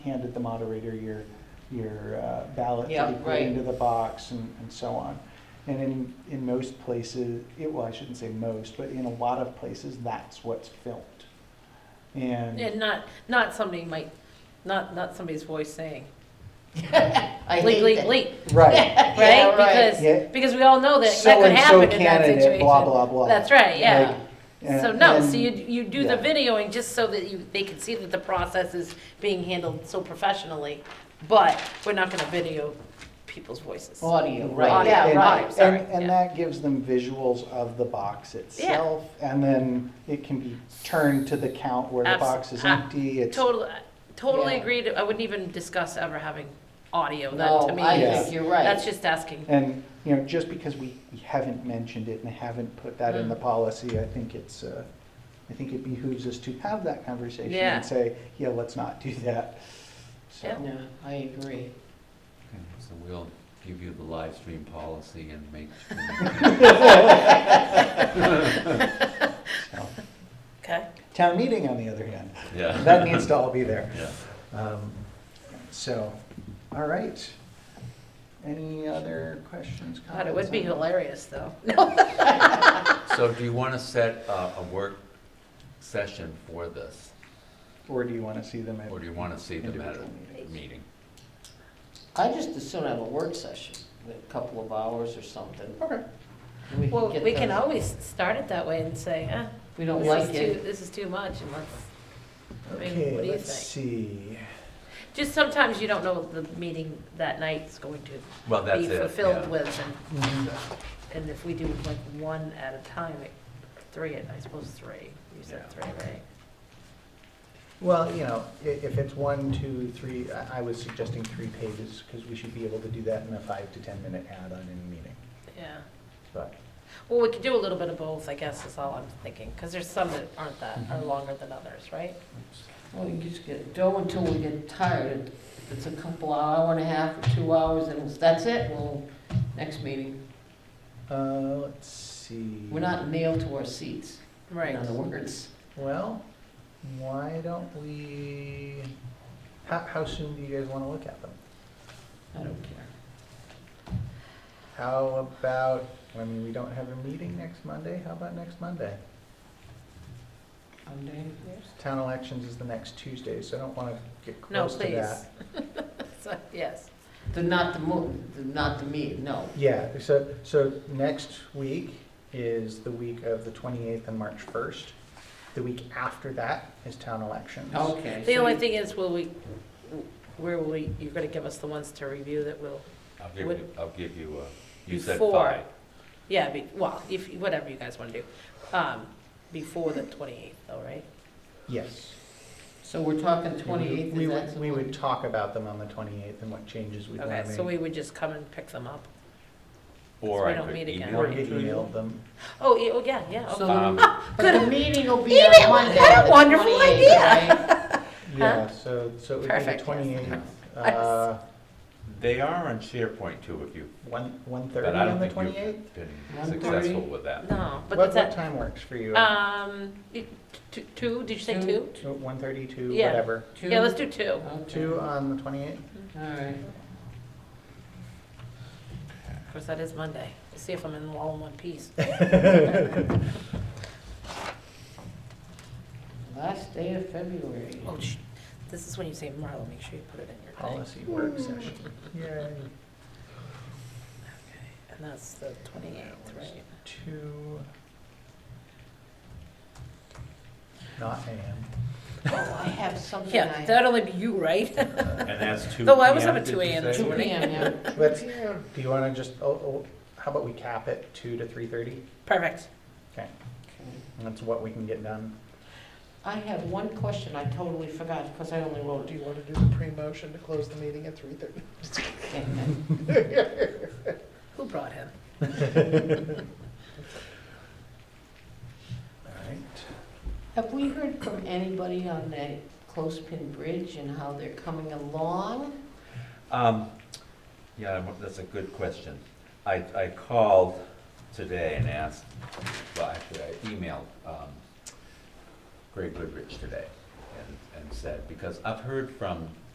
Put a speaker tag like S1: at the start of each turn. S1: handed the moderator your, your uh, ballot
S2: Yeah,
S1: to be put
S2: right.
S1: into the box and, and so on. And in, in most places, it, well, I shouldn't say most, but in a lot of places, that's what's filmed. And,
S3: And not, not somebody might, not, not somebody's voice saying,
S2: I
S3: leak,
S2: hate
S3: leak,
S2: that.
S3: leak,
S1: right,
S2: Yeah,
S1: Yeah.
S3: right? Because, because we all know that that could
S1: so-and-so
S3: happen in that
S1: candidate, blah,
S3: situation.
S1: blah, blah.
S3: That's right, yeah.
S2: Like,
S1: And-
S3: So no, so
S1: and-
S3: you, you do the
S1: yeah.
S3: videoing just so that you, they can see that the process is being handled so professionally, but we're not gonna video people's voices.
S2: Audio, right,
S1: Right.
S2: yeah,
S1: And-
S2: right, sorry.
S1: And, and
S3: yeah.
S1: that gives them visuals of the box itself, and then it can be turned to the count where the
S3: Abs- ah,
S1: box is
S3: a-
S1: empty. It's
S3: Totally, totally
S2: Yeah.
S3: agreed, I wouldn't even discuss ever having audio, that to
S2: No,
S3: me
S2: I
S1: Yeah.
S2: think
S3: is,
S2: you're
S3: that's
S2: right.
S3: just asking.
S1: And, you know, just because we we haven't mentioned it and haven't put that in the
S3: Mm.
S1: policy, I think it's, uh, I think it behooves us to have that conversation
S3: Yeah.
S1: and say, yeah, let's not do that. So,
S3: Yeah.
S2: No, I agree.
S4: Okay, So we'll give you the live stream policy and make.
S1: so.
S3: Okay,
S2: Oh,
S1: Town meeting, on the other hand,
S4: Yeah.
S1: that needs to all be there.
S4: Yeah.
S1: Um, So, all right. Any other questions?
S3: God, it would be
S1: comments?
S3: hilarious though.
S4: So do you want to set uh, a, a work session for this?
S1: Or do you want to see them at?
S4: Or do you want to see them at
S1: Individual
S4: a
S1: meetings.
S4: meeting?
S2: I just as soon have a work session, a couple of hours or something.
S1: Okay.
S2: We
S3: Well,
S2: get
S3: we can
S2: those-
S3: always start it that way and say, eh,
S2: If we don't
S3: this
S2: like
S3: is too,
S2: it,
S3: this is too much and let's, I mean,
S1: Okay,
S3: what do you
S1: let's
S3: think?
S1: see.
S3: just sometimes you don't know the meeting that night's going to
S4: Well, Oh, that's
S3: be
S4: it. yeah.
S3: fulfilled with and, and if we do like one at a time, like three, at I suppose three, you said
S4: Yeah.
S3: three, right?
S1: Well, you know, i- if it's one, two, three, I I was suggesting three pages, because we should be able to do that in a five to 10-minute add-on in a meeting,
S3: Yeah,
S1: but,
S3: well, we could do a little bit of both, I guess is all I'm thinking, cause there's some that aren't that,
S2: Mm-hmm.
S3: are longer than others, right?
S2: well, you just get, go until we get tired. If it's a couple, hour and a half or two hours, and it's- that's it, well, next meeting.
S1: uh, let's see.
S2: We're not nailed to our seats, in
S3: Right,
S2: other words.
S1: Well, why don't we, how, how soon do you guys want to look at them?
S2: I don't care.
S1: How about, I mean, we don't have a meeting next Monday, how about next Monday?
S2: I'm doing yours.
S1: Town elections is the next Tuesday, so I don't want to get
S3: no,
S1: close to that.
S3: please. So, Yes,
S2: The, not the mo, the, not the meet, no.
S1: Yeah, so, so next week is the week of the 28th and March 1st. The week after that is town elections.
S2: Okay.
S3: the
S2: so
S3: only
S2: you-
S3: thing is, will we, where will we, you're gonna give us the ones to review that will
S4: I'll give
S3: Would-
S4: you, I'll give you, uh, you said
S3: Before.
S4: five.
S3: Yeah, be, well, if, whatever you guys wanna do, um, before the twenty-eighth though, right?
S1: Yes.
S2: So we're talking
S1: We-
S2: twenty-eighth,
S1: we
S2: is
S1: would-
S2: that the
S1: We
S2: one?
S1: would talk about them on the 28th and what changes we'd
S3: Okay,
S1: want
S3: so
S1: to
S3: we
S1: make.
S3: would just come and pick them up.
S4: Or
S3: we
S4: I
S3: don't
S4: could
S3: meet again.
S4: email
S1: Or
S4: you.
S1: get emailed them.
S3: Oh, yeah, oh, yeah, yeah,
S2: So
S3: okay.
S4: Um,
S2: the- But the meeting will be on
S3: Email,
S2: Monday.
S3: what a
S2: the
S3: wonderful
S2: 28th,
S3: idea.
S2: right?
S1: Yeah, so, so it would be the
S3: Perfect, yes.
S1: 28th, uh,
S4: They are on SharePoint too, if you,
S1: 1,
S4: but
S1: 1:30
S4: I don't
S1: on the
S4: think
S1: 28th?
S4: you've been
S2: 1:30?
S4: successful with that.
S3: No, but
S1: What,
S3: is
S1: what
S3: that,
S1: time works for you?
S3: um, you- t- two, did you say two?
S1: So 1:30, 2,
S3: yeah.
S1: whatever.
S2: Two?
S3: Yeah, let's do two.
S2: Okay.
S1: 2
S5: uh,
S1: on the 28th?
S2: All right.
S3: Of course, that is Monday. Let's See if I'm in all in one piece.
S2: Last day of February.
S3: Oh, sh, this is when you say Marla, make sure you put it in your thing.
S1: Policy work session. Yay.
S3: And that's the twenty-eighth, right?
S1: Two. Not AM.
S2: Oh, I have something
S3: Yeah,
S2: I,
S3: that'd only be you, right?
S4: And that's two.
S3: Though I was
S4: PM,
S3: up at
S4: did
S3: 2
S4: you
S3: AM this
S4: say?
S2: two P M, yeah.
S1: Let's, do you wanna just, oh, oh, how about we cap it two to three thirty?
S3: Perfect.
S1: Okay,
S2: Okay.
S1: and that's what we can get done.
S2: I have one question I totally forgot because I only wrote
S5: Do
S2: you.
S5: you want to do the pre-motion to close the meeting at three thirty?
S3: Who brought him?
S1: Alright.
S2: Have we heard from anybody on that Closepin Bridge and how they're coming along?
S4: Um, yeah, I'm- that's a good question. I, I called today and asked, well, actually, I emailed, um, Greg Goodrich today and, and said, because I've heard from